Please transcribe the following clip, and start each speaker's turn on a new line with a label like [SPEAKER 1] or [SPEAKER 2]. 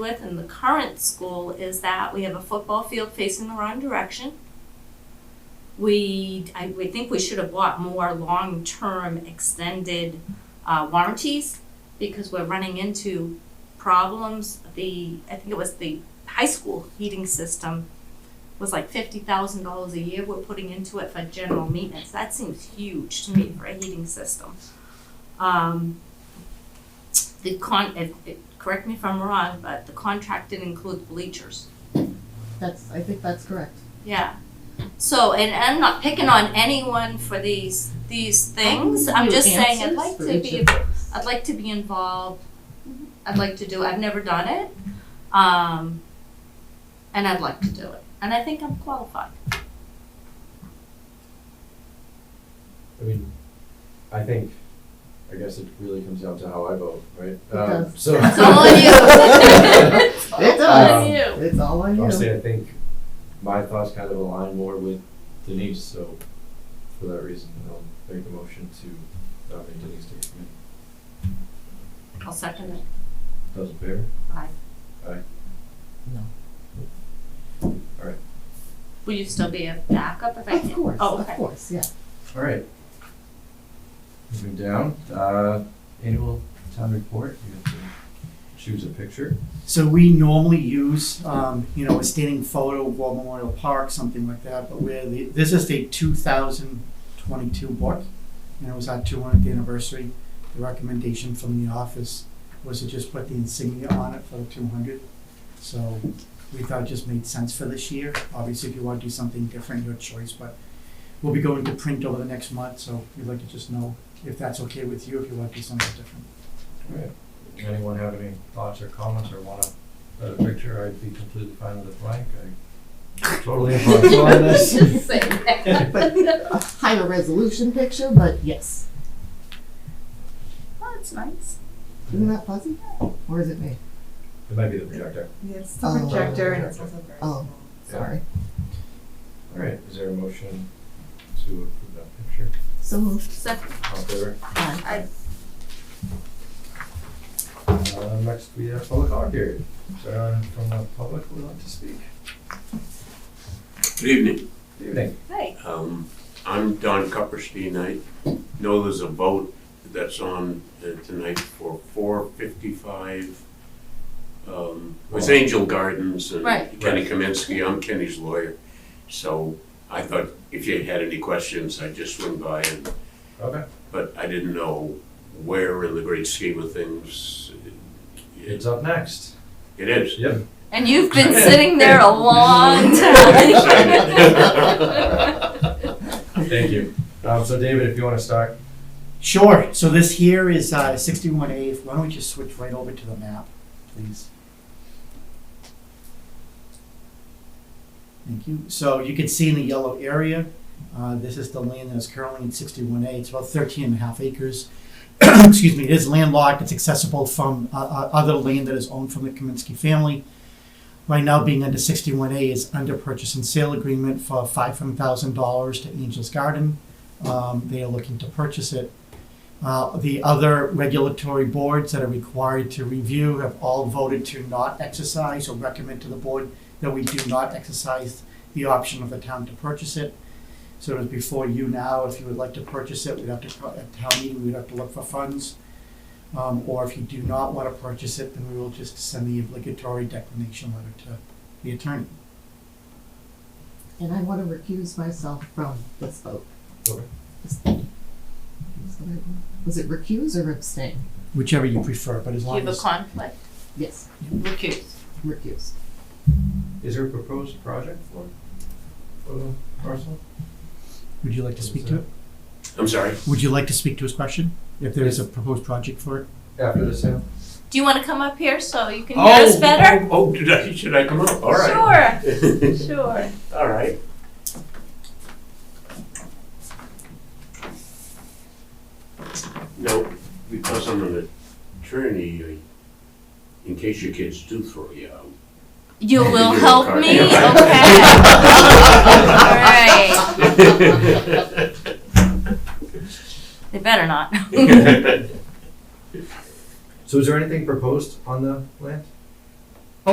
[SPEAKER 1] with in the current school is that we have a football field facing the wrong direction. We, I, we think we should have bought more long-term extended, uh, warranties because we're running into problems. The, I think it was the high school heating system was like fifty thousand dollars a year we're putting into it for general maintenance. That seems huge to me for a heating system. Um, the con, if, if, correct me if I'm wrong, but the contract didn't include bleachers.
[SPEAKER 2] That's, I think that's correct.
[SPEAKER 1] Yeah. So, and I'm not picking on anyone for these, these things. I'm just saying I'd like to be, I'd like to be involved. I'd like to do, it. I've never done it. Um, and I'd like to do it. And I think I'm qualified.
[SPEAKER 3] I mean, I think, I guess it really comes down to how I vote, right? Um,
[SPEAKER 2] does.
[SPEAKER 3] So.
[SPEAKER 1] It's all on you.
[SPEAKER 2] It does.
[SPEAKER 3] Um,
[SPEAKER 1] you.
[SPEAKER 2] It's all on you.
[SPEAKER 3] Honestly, I think my thoughts kind of align more with Denise, so for that reason, I'll make a motion to nominate Denise to the committee.
[SPEAKER 1] I'll second it.
[SPEAKER 3] Those in favor?
[SPEAKER 1] Aye. Will you still be a backup if I
[SPEAKER 2] Of
[SPEAKER 1] can?
[SPEAKER 2] course,
[SPEAKER 1] Oh,
[SPEAKER 2] of
[SPEAKER 1] okay.
[SPEAKER 2] course, yeah.
[SPEAKER 3] All right. Moving down, uh, annual town report, you have to choose a picture.
[SPEAKER 4] So we normally use, um, you know, a standing photo of War Memorial Park, something like that, but where the, this is the two thousand twenty-two book. And it was our two hundredth anniversary. The recommendation from the office was to just put the insignia on it for the two hundred. So we thought it just made sense for this year. Obviously, if you want to do something different, your choice, but we'll be going to print over the next month, so we'd like to just know if that's okay with you, if you want to do something different.
[SPEAKER 3] All right. Anyone have any thoughts or comments or wanna put a picture, I'd be completely fine with a blank, I totally am flexible on this.
[SPEAKER 1] Just say that.
[SPEAKER 2] But a higher resolution picture, but yes.
[SPEAKER 1] Oh, that's nice.
[SPEAKER 2] Isn't that fuzzy? Or is it me?
[SPEAKER 3] It might be the projector.
[SPEAKER 5] Yes, the
[SPEAKER 2] Oh.
[SPEAKER 5] projector and it's also very
[SPEAKER 2] Oh.
[SPEAKER 5] small.
[SPEAKER 2] Sorry.
[SPEAKER 3] All right, is there a motion to approve that picture?
[SPEAKER 2] So moved.
[SPEAKER 1] Second.
[SPEAKER 3] All in favor?
[SPEAKER 2] Aye.
[SPEAKER 3] Uh, next we have public art here. Is there anyone from the public who would like to speak?
[SPEAKER 6] Good evening.
[SPEAKER 3] Good evening.
[SPEAKER 1] Hey.
[SPEAKER 6] Um, I'm Don Cupperstein. I know there's a vote that's on uh, tonight for four fifty-five um, with Angel Gardens and
[SPEAKER 1] Oh. Right.
[SPEAKER 6] Kenny Kaminsky. I'm Kenny's lawyer. So I thought if you had any questions, I'd just swing by and,
[SPEAKER 3] Okay,
[SPEAKER 6] but I didn't know where in the great scheme of things it
[SPEAKER 3] it's up next.
[SPEAKER 6] it is.
[SPEAKER 3] Yep.
[SPEAKER 1] And you've been sitting there a long time.
[SPEAKER 3] Thank you. Um, so David, if you wanna start,
[SPEAKER 4] Sure, so this here is uh, 61A, why don't we just switch right over to the map, please? Thank you, so you can see in the yellow area, uh, this is the land that is currently in 61A, it's about 13 and a half acres. Excuse me, it is landlocked, it's accessible from uh, uh, other land that is owned from the Kaminsky family. Right now, being under 61A is under purchase and sale agreement for $500,000 to Angel's Garden. Um, They are looking to purchase it. Uh, The other regulatory boards that are required to review have all voted to not exercise or recommend to the board that we do not exercise the option of the town to purchase it. So it's before you now, if you would like to purchase it, we'd have to, co- at town meeting, we'd have to look for funds. Um, Or if you do not want to purchase it, then we will just send the obligatory declination letter to the attorney.
[SPEAKER 2] And I want to recuse myself from this vote.
[SPEAKER 3] Okay.
[SPEAKER 2] Is- is that right? Was it recuse or abstain?
[SPEAKER 4] Whichever you prefer, but as
[SPEAKER 1] You
[SPEAKER 4] long as.
[SPEAKER 1] have a conflict.
[SPEAKER 2] Yes,
[SPEAKER 1] Recuse.
[SPEAKER 2] recuse.
[SPEAKER 3] is there a proposed project for, for the parcel?
[SPEAKER 4] Would you like to speak to it?
[SPEAKER 6] I'm sorry.
[SPEAKER 4] Would you like to speak to his question? If there is a proposed project for it?
[SPEAKER 3] After the sale?
[SPEAKER 1] Do you want to come up here so you can hear us
[SPEAKER 6] Oh,
[SPEAKER 1] better?
[SPEAKER 6] Oh, oh, did I, should I come up? All right.
[SPEAKER 1] Sure, sure.
[SPEAKER 6] All right. Now, because I'm an attorney, I- in case your kids do throw you out.
[SPEAKER 1] You
[SPEAKER 6] Maybe
[SPEAKER 1] will
[SPEAKER 6] do a
[SPEAKER 1] help
[SPEAKER 6] card.
[SPEAKER 1] me? Okay.
[SPEAKER 6] Yeah,
[SPEAKER 1] All
[SPEAKER 6] right.
[SPEAKER 1] right. They better not.
[SPEAKER 3] So is there anything proposed on the land?